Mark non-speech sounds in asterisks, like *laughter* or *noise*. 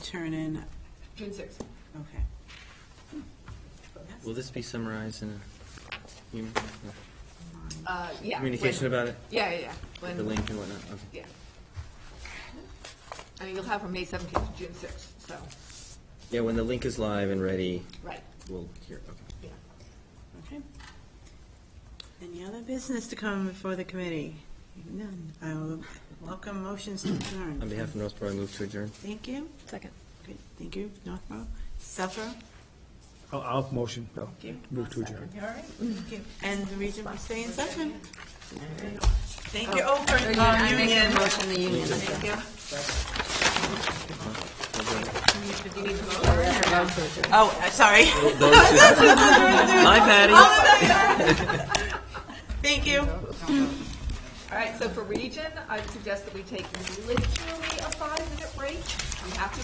turn in, June sixth. okay. Will this be summarized in a commu- Uh, yeah. communication when- about it? Yeah, yeah, yeah. When- The link and whatnot? Okay. Yeah. I mean, you'll have from May seventeenth to June sixth, so, Yeah, when the link is live and ready, right, we'll hear, okay. yeah. Okay. Any other business to come before the committee? None. I will welcome motions to On adjourn. behalf of Northborough, I move to adjourn. Thank you. Second. Good. Thank you, Northborough. Suffer. I'll, I'll motion, I'll you. move to adjourn. All right. Thank you. And the reason for staying in session. Thank you, Oakland uh, I make Union. a motion, the union. Thank you. Oh, uh, sorry. Hi, Patty. *laughs* Thank you. All right, so for region, I suggest that we take literally a five-minute break. We have to